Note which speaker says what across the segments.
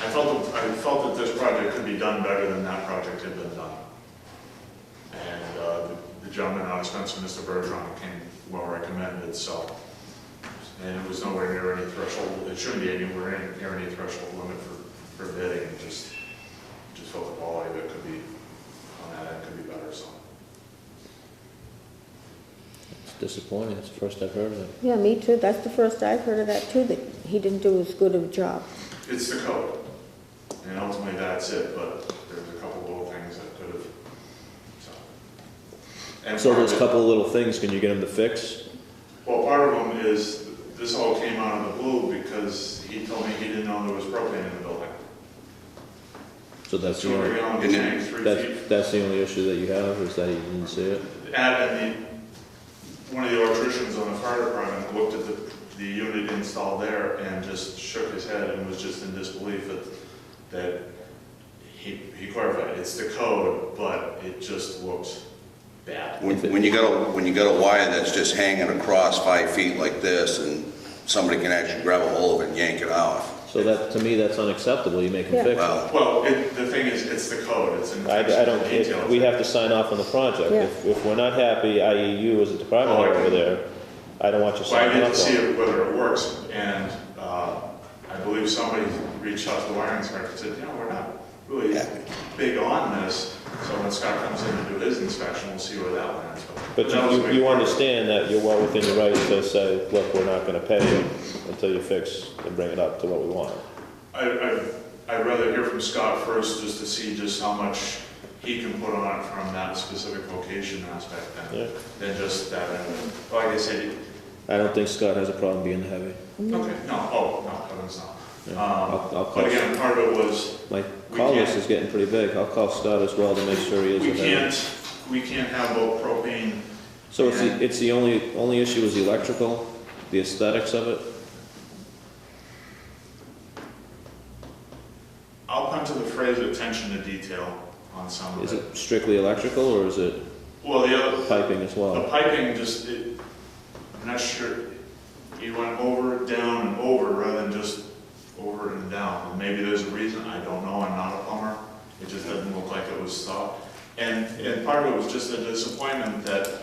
Speaker 1: I felt, that- I felt that this project could be done better than that project had been done. And uh, the- the gentleman out of Spencer, Mr. Bergeron, came well recommended, so. And it was nowhere near any threshold, it shouldn't be anywhere in- near any threshold limit for, for bidding, it just, just felt the quality of it could be, on that end could be better, so.
Speaker 2: It's disappointing, it's the first I've heard of it.
Speaker 3: Yeah, me too. That's the first I've heard of that too, that he didn't do as good of a job.
Speaker 1: It's the code, and ultimately that's it, but there's a couple little things that could have, so. And
Speaker 2: So
Speaker 1: part of
Speaker 2: there's a
Speaker 1: it-
Speaker 2: couple of little things, can you get them to fix?
Speaker 1: Well, part of them is, this all came out of the blue because he told me he didn't know there was propane in the building.
Speaker 2: So that's
Speaker 1: Two
Speaker 2: the
Speaker 1: hundred
Speaker 2: only,
Speaker 1: gallon
Speaker 4: And
Speaker 1: tank, three feet.
Speaker 2: that's, that's the only issue that you have, is that you didn't see it?
Speaker 1: Add in the, one of the electricians on the fire department looked at the, the unit installed there and just shook his head and was just in disbelief that, that he, he clarified, it's the code, but it just looks bad.
Speaker 4: When when you got a, when you got a wire that's just hanging across five feet like this, and somebody can actually grab a hold of it and yank it off,
Speaker 2: So that, to me, that's unacceptable, you make
Speaker 3: Yeah.
Speaker 2: them fix it.
Speaker 4: well,
Speaker 1: Well, it, the thing is, it's the code, it's in
Speaker 2: I, I don't,
Speaker 1: detail.
Speaker 2: if, we have to sign off on the project.
Speaker 3: Yeah.
Speaker 2: If, if we're not happy, i.e. you as a department
Speaker 1: Oh, I
Speaker 2: head over
Speaker 1: didn't-
Speaker 2: there, I don't want you
Speaker 1: Well, I
Speaker 2: signing
Speaker 1: need to
Speaker 2: off on
Speaker 1: see
Speaker 2: it.
Speaker 1: it- whether it works, and uh, I believe somebody reached out to the wiring inspector and said, you know, we're not really big on this, so when Scott comes in to do his inspection, we'll see where that lands.
Speaker 2: But
Speaker 1: that was a
Speaker 2: you-
Speaker 1: big
Speaker 2: you, you
Speaker 1: part.
Speaker 2: understand that you're well within your rights to say, look, we're not gonna pay you until you fix and bring it up to what we want.
Speaker 1: I, I, I'd rather hear from Scott first, just to see just how much he can put on it from that specific location aspect
Speaker 2: Yeah.
Speaker 1: than, than just that. And Like I said,
Speaker 2: I don't think Scott has a problem being the heavy.
Speaker 1: okay, no, oh, no, Kevin's not.
Speaker 2: Yeah, I'll- I'll
Speaker 1: Um, But
Speaker 2: call-
Speaker 1: again, part of it was,
Speaker 2: My
Speaker 1: We
Speaker 2: call
Speaker 1: can't-
Speaker 2: list is getting pretty big, I'll call Scott as well to make sure he is
Speaker 1: we
Speaker 2: the heavy.
Speaker 1: can't, we can't have both propane
Speaker 2: So it's,
Speaker 1: Yeah.
Speaker 2: the- it's the only, only issue is the electrical, the aesthetics of it?
Speaker 1: I'll come to the phrase attention to detail on some
Speaker 2: Is
Speaker 1: of it.
Speaker 2: it strictly electrical or is it
Speaker 1: Well, the other,
Speaker 2: piping as
Speaker 1: the
Speaker 2: well?
Speaker 1: piping just, it, I'm not sure, you went over, down, and over rather than just over and down. And Maybe there's a reason, I don't know, I'm not a plumber. It just doesn't look like it was thought. And, and part of it was just a disappointment that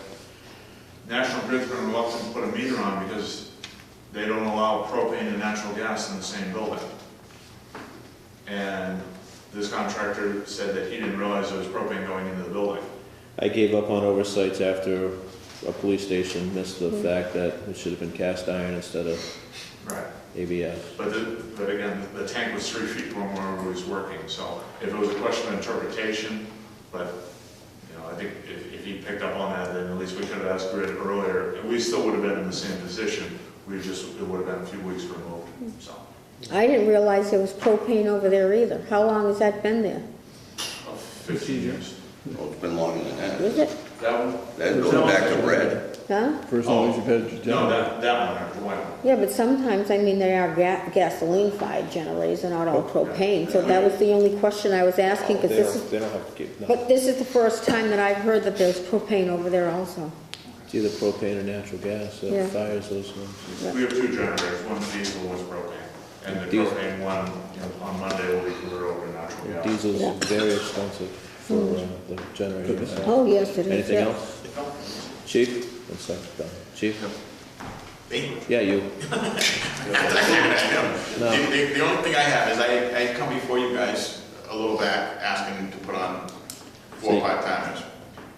Speaker 1: National Grid's been reluctant to put a meter on because they don't allow propane and natural gas in the same building. And this contractor said that he didn't realize there was propane going into the building.
Speaker 2: I gave up on oversights after a police station missed the fact that it should have been cast iron instead of
Speaker 1: Right.
Speaker 2: ABS.
Speaker 1: But, the- but again, the tank was three feet from where it was working, so if it was a question of interpretation, but, you know, I think if, if he picked up on that, then at least we could have asked Grid earlier, and we still would have been in the same position, we just, it would have been a few weeks removed, so.
Speaker 3: I didn't realize there was propane over there either. How long has that been there?
Speaker 1: Fifteen years.
Speaker 4: well, it's been longer than that.
Speaker 3: Is it?
Speaker 1: That one?
Speaker 4: That goes back to red.
Speaker 3: Huh?
Speaker 5: For as
Speaker 2: Oh,
Speaker 1: Oh.
Speaker 5: long as you've had your generator.
Speaker 1: No, that, that one, the one.
Speaker 3: Yeah, but sometimes, I mean, they are ga- gasoline-fired generators, they're not all propane. So that was the only question I was asking, because
Speaker 2: They
Speaker 3: this
Speaker 2: don't,
Speaker 3: is,
Speaker 2: they don't have to keep, no.
Speaker 3: but this is the first time that I've heard that there's propane over there also.
Speaker 2: It's either propane or natural gas
Speaker 3: Yeah.
Speaker 2: that fires those ones.
Speaker 1: We have two generators, one diesel, one's propane, and the
Speaker 2: Diesel.
Speaker 1: propane one, you know, on Monday will be converted over to natural gas.
Speaker 2: Diesel's
Speaker 3: Yeah. Mm.
Speaker 2: very expensive for uh, the generator.
Speaker 3: Oh, yes, it is.
Speaker 2: Anything
Speaker 3: yeah.
Speaker 2: else? Chief? One sec, done. Chief?
Speaker 6: Me?
Speaker 2: Yeah, you.
Speaker 6: The, the- the only thing I have is I, I had come before you guys a little back, asking to put on four
Speaker 2: See.
Speaker 6: or five timers.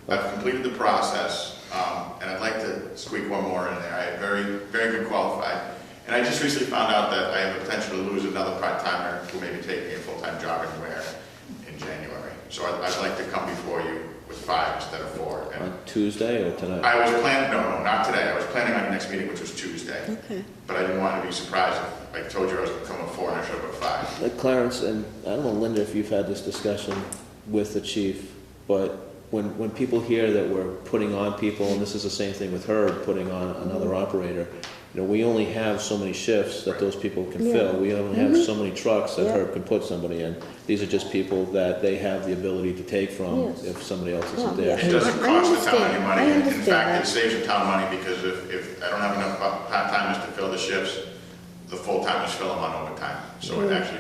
Speaker 6: I've completed the process, um, and I'd like to squeak one more in there. I had very, very good qualified. And I just recently found out that I have a potential to lose another part-timer who may be taking a full-time job in Ware in January. So I'd, I'd like to come before you with five instead of four. And
Speaker 2: On Tuesday or tonight?
Speaker 6: I was planning, no, no, not today. I was planning on the next meeting, which was Tuesday.
Speaker 3: Okay.
Speaker 6: But I didn't want to be surprised. I told you I was gonna come at four and I showed up at five.
Speaker 2: Uh, Clarence, and I don't know, Linda, if you've had this discussion with the chief, but when, when people hear that we're putting on people, and this is the same thing with Herb, putting on another
Speaker 3: Mm-hmm.
Speaker 2: operator, you know, we only have so many shifts that those people can
Speaker 3: Yeah. Mm-hmm.
Speaker 2: fill. We only have so many trucks that
Speaker 3: Yeah.
Speaker 2: Herb can put somebody in. These are just people that they have the ability to take from
Speaker 3: Yes.
Speaker 2: if somebody else
Speaker 3: Well,
Speaker 2: isn't there.
Speaker 3: yeah.
Speaker 6: It doesn't
Speaker 3: I
Speaker 6: cost the town any
Speaker 3: understand.
Speaker 6: money.
Speaker 3: I
Speaker 6: and In
Speaker 3: understand
Speaker 6: fact,
Speaker 3: that.
Speaker 6: it saves the town money because if, if
Speaker 3: Mm.
Speaker 6: I don't have enough part-timers to fill the shifts, the full-timers fill them on overtime. So it actually